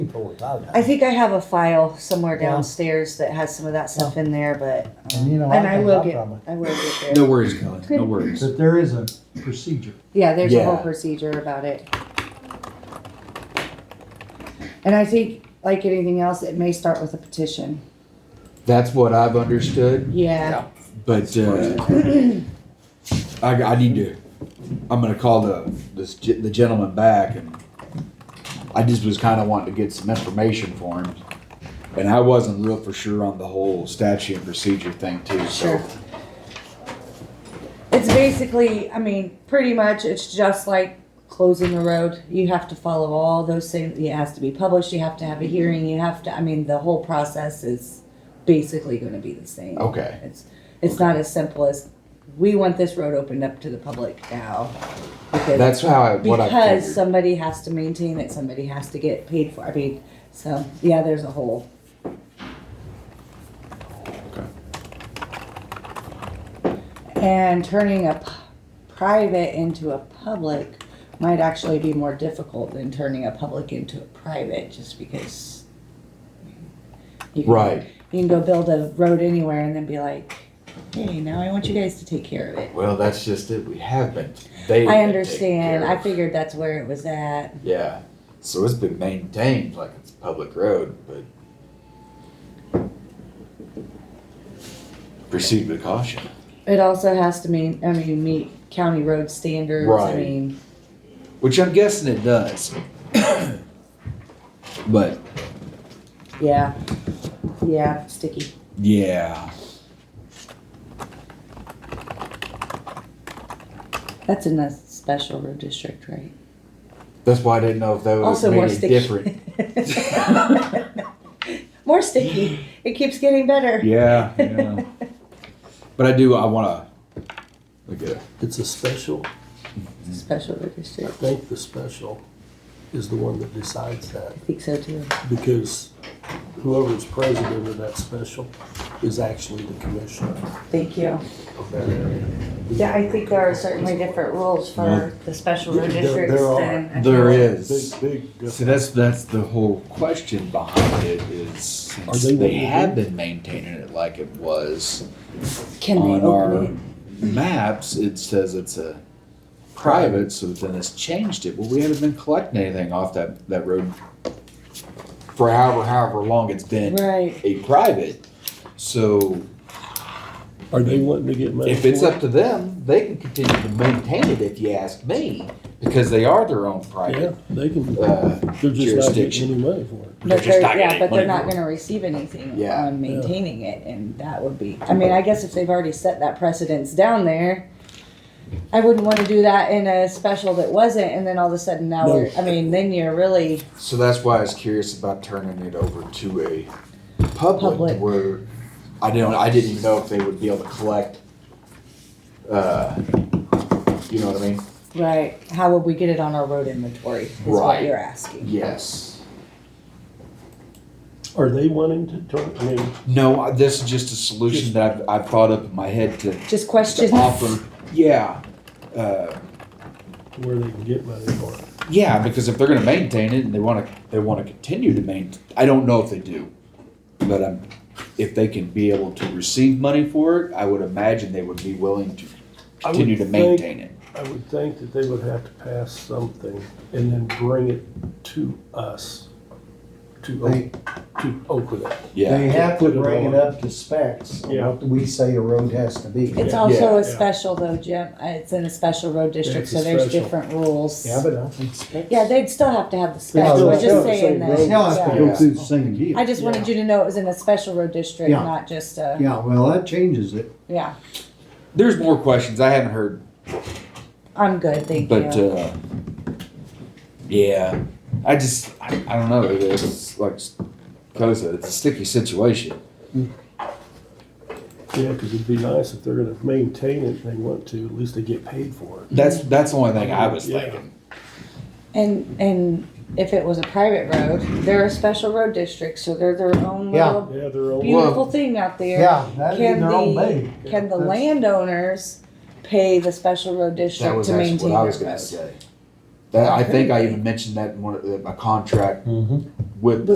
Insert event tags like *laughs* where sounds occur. people without it. I think I have a file somewhere Yeah. downstairs that has some of that stuff in there, but um, And you know, and I I can will help get them. I will get there. No worries, Kelly. No worries. But there is a procedure. Yeah, there's a whole Yeah. procedure about it. And I think, like anything else, it may start with a petition. That's what I've understood, Yeah. but uh, I, I need to. I'm gonna call the this ge- the gentleman back, and I just was kind of wanting to get some information for him, and I wasn't real for sure on the whole statute and procedure thing too. So Sure. It's basically, I mean, pretty much, it's just like closing a road. You have to follow all those things. It has to be published. You have to have a hearing. You have to, I mean, the whole process is basically going to be the same. okay, It's, it's not as simple as, we want this road opened up to the public now. Because, that's how I, what I because figured. somebody has to maintain it, somebody has to get paid for, I mean, so, yeah, there's a whole. Okay. And turning a p- private into a public might actually be more difficult than turning a public into a private, just because. you can- Right. You can go build a road anywhere and then be like, hey, now I want you guys to take care of it. Well, that's just it. We have been. They. I understand. I figured that's where it was at. Yeah. So it's been maintained like it's a public road, but proceed with caution. It also has to mean, I mean, meet county road standards. I Right. mean, Which I'm guessing it does. *coughs* but yeah, yeah, sticky. yeah. That's in the special road district, right? That's why I didn't know if that was Also more made it sticky. different. *laughs* more sticky. It keeps getting better. *laughs* Yeah, yeah. but I do I wanna look at it. It's a special, Special road I district. think the special is the one that decides I that, think so too. because whoever's president of that special is actually the commissioner Thank you. of that area. Yeah, I think there are certainly different rules for the special road There- districts there are. than. There is. Big, big So difference. that's that's the whole question behind it is since they they, what you have been maintaining it like it was Can on they our open maps, it says it's a private, so then it's changed it. Well, we haven't been collecting anything off that, that road for however, however long it's it? been Right. a private. So Are they wanting to get money if for it's up it? to them, they can continue to maintain it if you ask me, because they are their own Yeah, private. they can, Uh, they're just not getting jurisdiction. any money for it. But They're just they're, not yeah, getting but they're money not for it. gonna receive anything Yeah. on maintaining it, and that would be, I mean, I guess if they've already set that precedence down there, I wouldn't wanna do that in a special that wasn't, and then all of a sudden now, No. we're I mean, then you're really, So that's why I was curious about turning it over to a public Public. where I don't, I didn't even know if they would be able to collect. Uh, you know what I mean? right, how would we get it on our road inventory, is what Right. you're asking. Yes. Are they wanting to turn, I mean, No, I- this is just a solution that I've, I've thought up in my head to, Just to questions. offer. Yeah. Uh, where they can get money for it? yeah, because if they're going to maintain it and they want to, they want to continue to maintain. I don't know if they do, but um, if they can be able to receive money for it, I would imagine they would be willing to I would continue to think- maintain it. I would think that they would have to pass something and then bring it to us, to, They- Oak- to Oakwood. Yeah. They have to Put it bring it on. up to specs, Yeah. what we say a road has to be. It's Yeah. also Yeah. a special though, Jim, Uh, it's in a special road district, it's a so there's special. different rules. Yeah, but I think specs. Yeah, they'd still have to have the specs, still we're have to have just the saying same road. that. Now I have to go Yeah. through the same deal. I just wanted you to know it was in a special road district, Yeah. not just a, yeah. Yeah, well, that changes it. There's more questions I haven't heard, I'm good, thank but you. uh, yeah, I just I, I don't know. It's like Kelly said, it's a sticky situation. Yeah, because it'd be nice if they're gonna maintain it and they want to, at least they get paid for it. That's that's the only thing I was Yeah. thinking. And, and if it was a private road, they're a special road district, so they're their own Yeah. little Yeah, their own. beautiful thing out there. Yeah, that'd be Can their own the, thing. can the That's- landowners pay the special road That district was to actually maintain what I was their going to roads? say. That, I think I even mentioned that in one of the, my contract Mm-hmm. with